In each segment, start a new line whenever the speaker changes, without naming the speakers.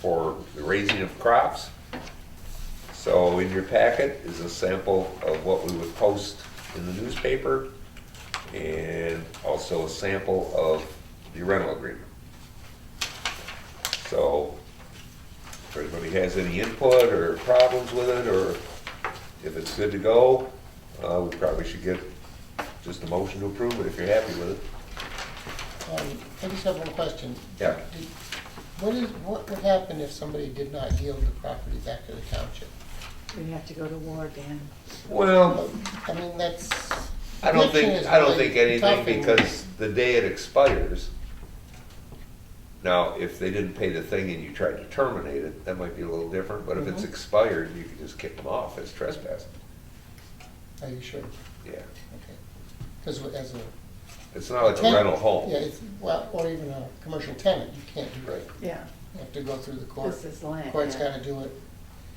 for the raising of crops. So in your packet is a sample of what we would post in the newspaper and also a sample of the rental agreement. So if anybody has any input or problems with it, or if it's good to go, uh, we probably should get just a motion to approve it if you're happy with it.
Um, I just have one question.
Yeah.
Did- What is, what would happen if somebody did not yield the property back to the township?
We have to go to war, Dan.
Well,
I mean, that's.
I don't
eviction
think,
is
I don't
really
think anything,
tough and-
because the day it expires, now, if they didn't pay the thing and you tried to terminate it, that might be a little different, but if it's
Mhm.
expired, you can just kick them off as trespassing.
Are you sure?
Yeah,
Okay. Because as a.
Oh, it's not like a
tenant-
rental home.
Yeah, it's, well, or even a commercial tenant, you can't do
Right.
that.
Yeah,
You have to go through the court.
this is land.
Court's
yeah,
gotta do it.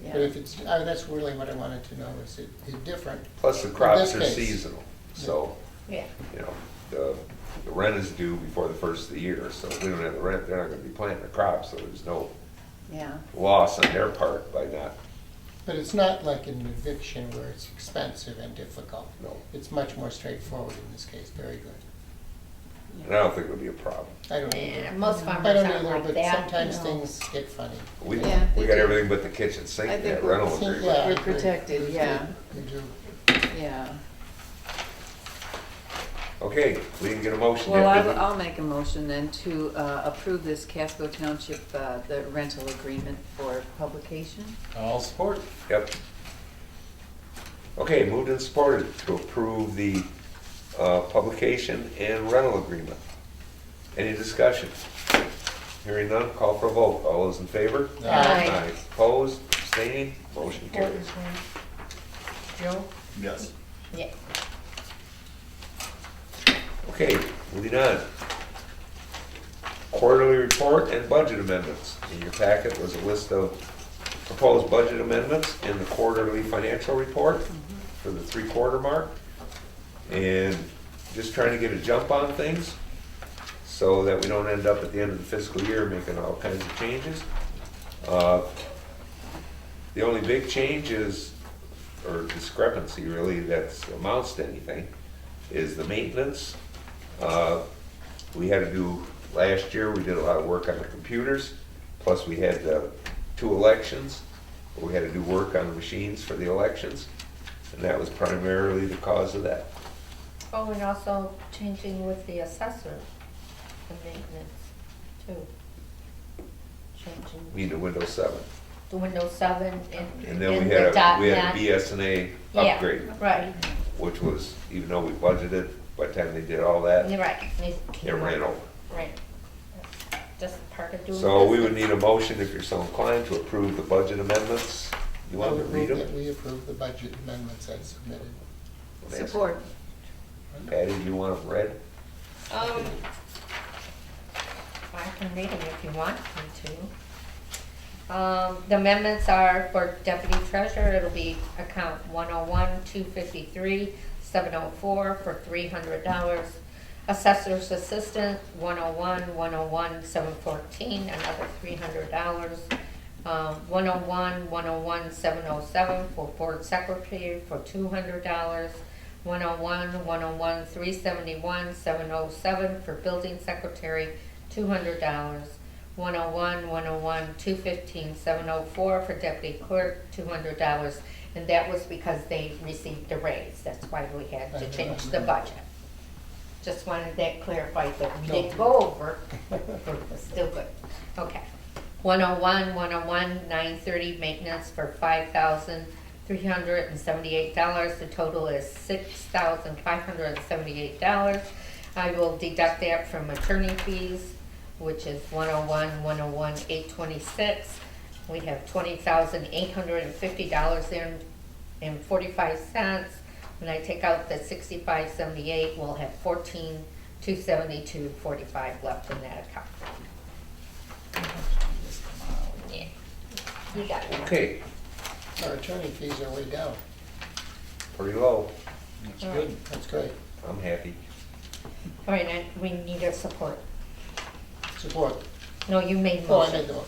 yeah.
But if it's, I, that's really what I wanted to know, is it, it different?
Plus the
this
crops are
case.
seasonal, so,
Yeah,
you know, the, the rent is due before the first of the year, so if we don't have the rent, they're not gonna be planting the crops, so there's no
yeah,
loss on their part by not,
But it's not like an eviction where it's expensive and difficult.
no.
It's much more straightforward in this case, very good.
And I don't think it would be a problem.
I don't
Eh,
either.
Most farmers
I don't
aren't
either,
like
but
that.
sometimes
no.
things get funny.
We,
Yeah,
we
they
got
do.
everything but the kitchen sink,
I
in
think
that
we're-
rental
Yeah,
agreement.
I
We're
agree.
protected, yeah.
You do.
yeah.
Okay, we didn't get a motion
Well,
yet.
I,
did we?
I'll make a motion then to uh, approve this Casco Township, uh, the rental agreement for publication.
I'll support.
Yep. Okay, moved and supported to approve the, uh, publication and rental agreement. Any discussion? Hearing none, call for a vote. All those in favor?
Aye.
Opposed, abstaining, motion carries.
Joe?
Yes.
Yeah.
Okay, moving on. Quarterly report and budget amendments. In your packet was a list of proposed budget amendments and the quarterly financial report for the three-quarter mark. And just trying to get a jump on things so that we don't end up at the end of the fiscal year making all kinds of changes. Uh, The only big change is, or discrepancy really, that's amounts to anything, is the maintenance. Uh, We had to do, last year, we did a lot of work on the computers, plus we had uh, two elections. where We had to do work on the machines for the elections, and that was primarily the cause of that.
Oh, and also changing with the assessor, the maintenance too.
We
Changing
need a Windows 7.
the Windows seven and.
And then we
the
had a,
dot
we had
net.
a BSNA
Yeah,
upgrade,
Right,
which was, even though we budgeted, by the time they did all that,
you're right. It
it
came
ran
out.
over.
Right. That's Just part of doing.
So we would
business.
need a motion if you're so inclined to approve the budget amendments. You
I
want to
would
read
move that
them?
we approve the budget amendments as submitted.
Support.
Patty, do you want them read?
Um, I can read them if you want me to. Um, the amendments are for deputy treasurer, it'll be account one oh one, two fifty-three, seven oh four for three hundred dollars. Assessor's assistant, 101, 101, 714, another three hundred dollars. Um, 101, 101, 707 for board secretary for two hundred dollars. 101, 101, 371, 707 for building secretary, $200. 101, 101, 215, 704 for deputy clerk, $200. And that was because they received a raise. That's why we had to change the budget. Just wanted that clarified that we didn't go over, but we're still good. Okay. 101, 101, 930 maintenance for $5,378. The total is $6,578. I will deduct that from attorney fees, which is 101, 101, 826. We have $20,850 there and 45 cents. When I take out the 6578, we'll have 14,272, 45 left in that account. Yeah. You got it.
Okay,
Our attorney fees are way down.
pretty low.
That's
All
good.
That's great.
I'm happy.
All right, and we need your support.
Support.
No, you made
Oh, I
motion.
made the motion.